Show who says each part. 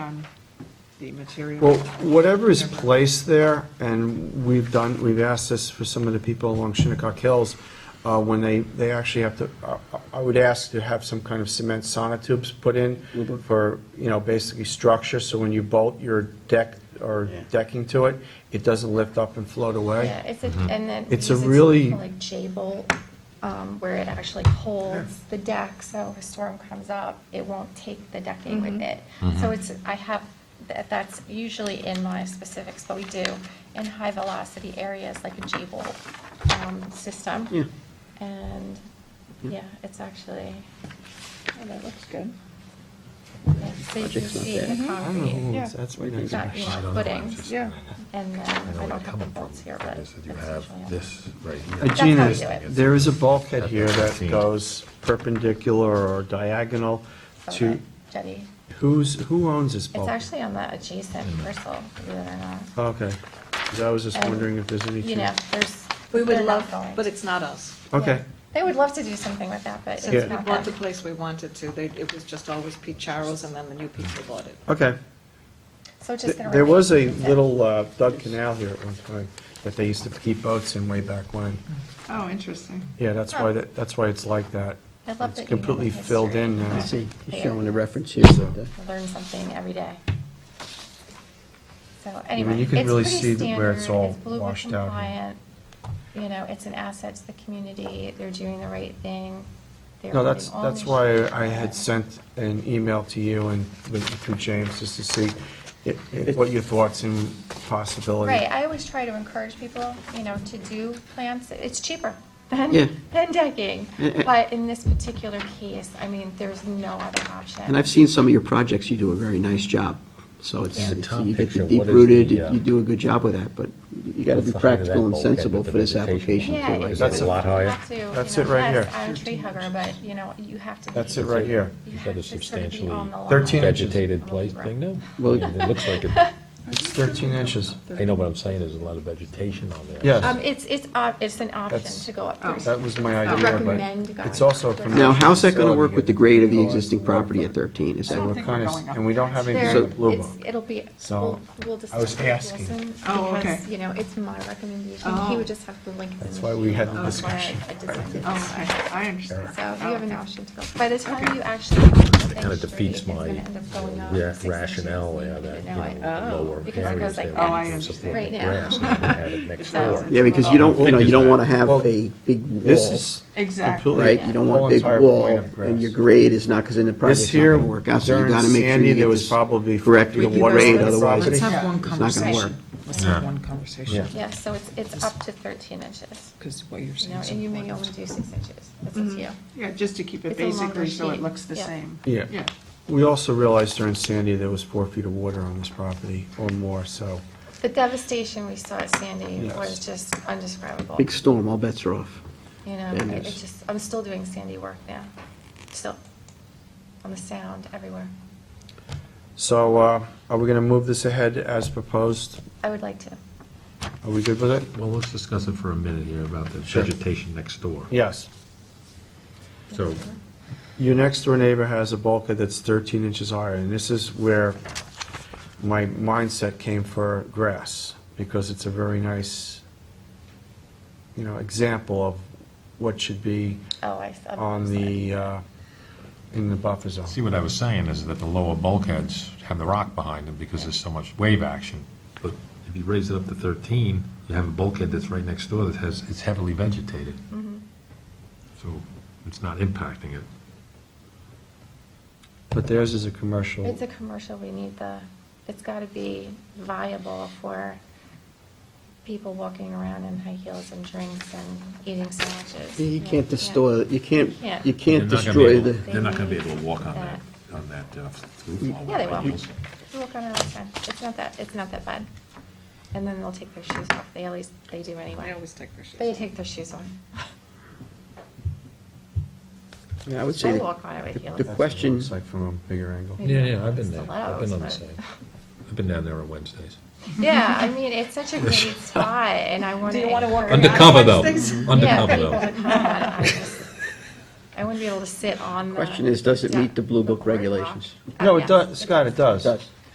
Speaker 1: on the material.
Speaker 2: Well, whatever is placed there, and we've done, we've asked this for some of the people along Shinnecock Hills, uh, when they, they actually have to, I- I I would ask to have some kind of cement sonotubes put in for, you know, basically structure, so when you bolt your deck or decking to it, it doesn't lift up and float away.
Speaker 3: Yeah, it's a,
Speaker 4: Mm-hmm.
Speaker 3: and then. we
Speaker 2: It's a
Speaker 3: use it to
Speaker 2: really-
Speaker 3: call Like J-bolt, um, where it actually holds the deck, so if a storm comes up, it won't take the decking with it.
Speaker 4: Mm-hmm.
Speaker 3: So it's, I have, that, that's usually in my specifics, but we do in high-velocity areas like a J-bolt, um, system.
Speaker 5: Yeah.
Speaker 3: And, yeah, it's actually,
Speaker 1: Oh, That looks good.
Speaker 3: it's safe to
Speaker 5: Project's not
Speaker 3: see in the
Speaker 5: bad.
Speaker 2: I don't know, who
Speaker 3: concrete,
Speaker 2: owns- Oh, that's right next
Speaker 3: It's not, you
Speaker 2: to
Speaker 3: know, footings,
Speaker 1: Yeah.
Speaker 3: and then
Speaker 4: I know
Speaker 3: I
Speaker 4: where
Speaker 3: don't
Speaker 4: you're
Speaker 3: have the
Speaker 4: coming from.
Speaker 3: bolts here, but.
Speaker 4: Is that you
Speaker 3: that's
Speaker 4: have
Speaker 3: usually it.
Speaker 4: this right
Speaker 2: Uh,
Speaker 4: here.
Speaker 3: That's how you
Speaker 2: Gina,
Speaker 3: do it.
Speaker 2: there is a bulkhead here that
Speaker 4: Seen.
Speaker 2: goes perpendicular or diagonal
Speaker 3: So
Speaker 2: to,
Speaker 3: that Jetty.
Speaker 2: who's, who owns this
Speaker 3: It's
Speaker 2: bulkhead?
Speaker 3: actually on the adjacent parcel, believe it or not.
Speaker 2: Okay, 'Cause I was just
Speaker 3: And,
Speaker 2: wondering if there's any.
Speaker 3: You know, there's.
Speaker 6: We
Speaker 3: they're
Speaker 6: would
Speaker 3: not
Speaker 6: love,
Speaker 3: going
Speaker 6: but
Speaker 3: to.
Speaker 6: it's not us.
Speaker 2: Okay,
Speaker 3: They would love to do something with that, but
Speaker 6: Since
Speaker 3: it's
Speaker 6: we
Speaker 3: not
Speaker 6: bought the
Speaker 3: them.
Speaker 6: place we wanted to, they, it was just always Pete Charles and then the new people bought it.
Speaker 2: okay.
Speaker 3: So it's just gonna.
Speaker 2: There was a
Speaker 3: remain as is.
Speaker 2: little uh, dug canal here at one time that they used to keep boats in way back when.
Speaker 3: Mm-hmm.
Speaker 1: Oh, interesting.
Speaker 2: Yeah, that's why,
Speaker 3: Huh.
Speaker 2: that. that's why it's like that.
Speaker 3: Oh. I
Speaker 2: It's
Speaker 3: love that you know the
Speaker 2: completely filled
Speaker 3: history.
Speaker 2: in now.
Speaker 3: Yeah.
Speaker 2: I
Speaker 6: You see, he's
Speaker 3: Yeah.
Speaker 6: showing a reference here. of the-
Speaker 3: I Learn something every day. So
Speaker 2: mean,
Speaker 3: anyway,
Speaker 2: you
Speaker 3: it's
Speaker 2: can really
Speaker 3: pretty
Speaker 2: see that where
Speaker 3: standard,
Speaker 2: it's
Speaker 3: it's
Speaker 2: all
Speaker 3: Blue Book
Speaker 2: washed out here.
Speaker 3: compliant. You know, it's an asset to the community, they're doing the right thing. They're
Speaker 2: No, that's,
Speaker 3: putting all
Speaker 2: that's
Speaker 3: their
Speaker 2: why
Speaker 3: shit
Speaker 2: I had
Speaker 3: together.
Speaker 2: sent an email to you and with- through James, just to see i- i- what your thoughts and possibility.
Speaker 3: Right, I always try to encourage people, you know, to do plants, it's cheaper than,
Speaker 5: Yeah.
Speaker 3: than decking.
Speaker 5: Eh, eh.
Speaker 3: But in this particular case, I mean, there's no other option.
Speaker 5: And I've seen some of your projects, you do a very nice job. So it's,
Speaker 4: Yeah. The
Speaker 5: it's-
Speaker 4: top
Speaker 5: you get
Speaker 4: picture,
Speaker 5: the
Speaker 4: what is
Speaker 5: deep rooted,
Speaker 4: the,
Speaker 5: you
Speaker 4: uh,
Speaker 5: you do a good job with that, but you gotta
Speaker 4: what's
Speaker 5: be
Speaker 4: the height of that
Speaker 5: practical and
Speaker 4: bulkhead with
Speaker 5: sensible
Speaker 4: the
Speaker 5: for this
Speaker 4: vegetation?
Speaker 5: application.
Speaker 3: Yeah,
Speaker 5: too.
Speaker 3: you
Speaker 4: Is that
Speaker 3: just
Speaker 4: a lot higher?
Speaker 3: have to, you
Speaker 2: That's
Speaker 3: know,
Speaker 2: it right
Speaker 3: yes,
Speaker 2: here.
Speaker 3: I'm a tree hugger, but, you know, you have to. be-
Speaker 2: That's it right here.
Speaker 3: you
Speaker 4: You've
Speaker 3: have
Speaker 4: got a
Speaker 3: to sort of be
Speaker 4: substantially
Speaker 3: on the line.
Speaker 2: 13 inches.
Speaker 4: Vegetated place thing now?
Speaker 5: Well-
Speaker 4: It looks like it,
Speaker 2: It's 13 inches.
Speaker 4: I know what I'm saying, there's a lot of vegetation on there.
Speaker 2: Yes.
Speaker 3: Um, it's, it's, op- it's an option
Speaker 2: That's- Oh.
Speaker 3: to go up. thirty.
Speaker 2: That was my
Speaker 3: I
Speaker 2: idea,
Speaker 3: recommend
Speaker 2: but
Speaker 3: going
Speaker 2: it's also. a
Speaker 3: upwards.
Speaker 2: commercial
Speaker 5: Now, how's that gonna
Speaker 2: facility
Speaker 5: work with the
Speaker 2: and-
Speaker 5: grade of the existing property at 13? Is
Speaker 2: So
Speaker 5: that,
Speaker 2: we're
Speaker 1: think
Speaker 2: kind
Speaker 1: we're
Speaker 2: of,
Speaker 1: going up.
Speaker 2: and we don't have anything
Speaker 3: There,
Speaker 2: with Blue Book.
Speaker 3: it's, it'll be,
Speaker 2: So,
Speaker 3: we'll, we'll
Speaker 2: I was
Speaker 3: discuss with
Speaker 2: asking.
Speaker 3: Wilson.
Speaker 1: Oh, okay.
Speaker 3: Because, you know, it's my recommendation.
Speaker 1: Oh.
Speaker 3: He would just have to link.
Speaker 2: That's why we had the discussion.
Speaker 1: Oh, I, I understand.
Speaker 3: So you have an
Speaker 1: Okay.
Speaker 3: option to go. By the time
Speaker 1: Okay.
Speaker 3: you actually. It
Speaker 4: kinda defeats my, Ra- Rationale, yeah, that, you know,
Speaker 1: Oh.
Speaker 4: lower
Speaker 3: Because it
Speaker 4: areas
Speaker 3: goes like
Speaker 4: there.
Speaker 3: that.
Speaker 1: Oh, I
Speaker 4: can
Speaker 1: understand.
Speaker 4: support
Speaker 3: Right
Speaker 4: the
Speaker 3: now.
Speaker 4: grass, and then have it next
Speaker 1: It
Speaker 4: door.
Speaker 1: sounds-
Speaker 5: yeah, because you don't, you know, you don't wanna have
Speaker 2: Well,
Speaker 5: a big wall.
Speaker 2: This is.
Speaker 1: Exactly.
Speaker 2: completely-
Speaker 5: Right, you don't want
Speaker 2: whole
Speaker 5: a big
Speaker 2: entire
Speaker 5: wall,
Speaker 2: point of
Speaker 5: and your
Speaker 2: grass.
Speaker 5: grade is not, because then the
Speaker 2: This
Speaker 5: project's not
Speaker 2: here,
Speaker 5: gonna work out, so you
Speaker 2: during
Speaker 5: gotta make sure
Speaker 2: Sandy,
Speaker 5: you
Speaker 2: there
Speaker 5: get
Speaker 2: was
Speaker 5: this
Speaker 2: probably.
Speaker 5: correct
Speaker 2: fifty
Speaker 5: with the
Speaker 2: water
Speaker 5: grade,
Speaker 2: on the
Speaker 5: otherwise
Speaker 2: property.
Speaker 5: it's
Speaker 7: Let's have one
Speaker 5: it's not gonna work.
Speaker 7: conversation. Let's have one conversation,
Speaker 4: Yeah.
Speaker 3: Yeah, so it's, it's up to thirteen inches,
Speaker 7: because what you're
Speaker 3: you
Speaker 7: saying
Speaker 3: know,
Speaker 7: is
Speaker 3: and you may only
Speaker 7: important.
Speaker 3: do six inches. That's
Speaker 1: Mm-hmm.
Speaker 3: up to you.
Speaker 1: Yeah, just to keep it
Speaker 3: It's a longer
Speaker 1: basically so it
Speaker 3: sheet.
Speaker 1: looks the
Speaker 3: Yeah.
Speaker 1: same.
Speaker 2: Yeah.
Speaker 1: Yeah.
Speaker 2: We also realized during Sandy there was four feet of water on this property or more, so.
Speaker 3: The devastation we saw at Sandy
Speaker 2: Yes.
Speaker 3: was just undescribable.
Speaker 5: Big storm, all bets are off.
Speaker 3: You know,
Speaker 5: And
Speaker 3: it-
Speaker 5: it's-
Speaker 3: it's just, I'm still doing Sandy work now, still, on the sound everywhere.
Speaker 2: So uh, are we going to move this ahead as proposed?
Speaker 3: I would like to.
Speaker 2: Are we good with it?
Speaker 4: Well, let's discuss it for a minute here about the
Speaker 2: Sure.
Speaker 4: vegetation next door.
Speaker 2: Yes.
Speaker 4: So,
Speaker 2: Your next door neighbor has a bulkhead that's 13 inches higher, and this is where my mindset came for grass, because it's a very nice, you know, example of what should be
Speaker 3: Oh, I. I'm
Speaker 2: on
Speaker 3: sorry.
Speaker 2: the, uh, in the buffer zone.
Speaker 4: see, what I was saying is that the lower bulkheads have the rock behind them because there's so much wave action. But if you raise it up to 13, you have a bulkhead that's right next door that has, it's heavily vegetated. So it's not impacting it.
Speaker 2: But theirs is a commercial.
Speaker 3: It's a commercial, we need the, it's gotta be viable for people walking around in high heels and drinks and eating sandwiches.
Speaker 5: You can't
Speaker 3: know,
Speaker 5: destroy, you can't,
Speaker 3: Yeah.
Speaker 5: you can't
Speaker 4: They're not gonna be
Speaker 5: destroy
Speaker 4: able-
Speaker 5: the,
Speaker 4: They're not gonna be able to walk on that, on that uh, roof all
Speaker 3: Yeah, they will.
Speaker 4: the way.
Speaker 3: You walk around all the time, it's not that, it's not that bad. And then they'll take their shoes off, they always, they do anyway.
Speaker 6: I always take their shoes
Speaker 3: They
Speaker 6: off.
Speaker 3: take their shoes off.
Speaker 5: Yeah, I would say
Speaker 3: I
Speaker 5: that
Speaker 3: walk on it with
Speaker 5: the-
Speaker 3: heels.
Speaker 5: the
Speaker 2: That's what it
Speaker 5: question-
Speaker 2: looks like from a bigger angle.
Speaker 3: Maybe
Speaker 4: Yeah,
Speaker 3: not
Speaker 4: yeah, I've been
Speaker 3: the
Speaker 4: there, I've been on the
Speaker 3: lows,
Speaker 4: site.
Speaker 3: but-
Speaker 4: I've been down there on Wednesdays.
Speaker 3: Yeah, I mean, it's such a great spot, and I want to.
Speaker 6: Do you wanna walk around
Speaker 4: Undercover though,
Speaker 6: Wednesdays?
Speaker 3: Yeah,
Speaker 4: undercover
Speaker 3: people
Speaker 4: though.
Speaker 3: would come on, I just- I wouldn't be able to sit on the.
Speaker 5: Question is, does it meet
Speaker 3: deck,
Speaker 5: the Blue Book
Speaker 3: boardwalk.
Speaker 5: regulations?
Speaker 3: Uh,
Speaker 2: No, it
Speaker 3: yes,
Speaker 2: does, Scott, it does.
Speaker 5: does.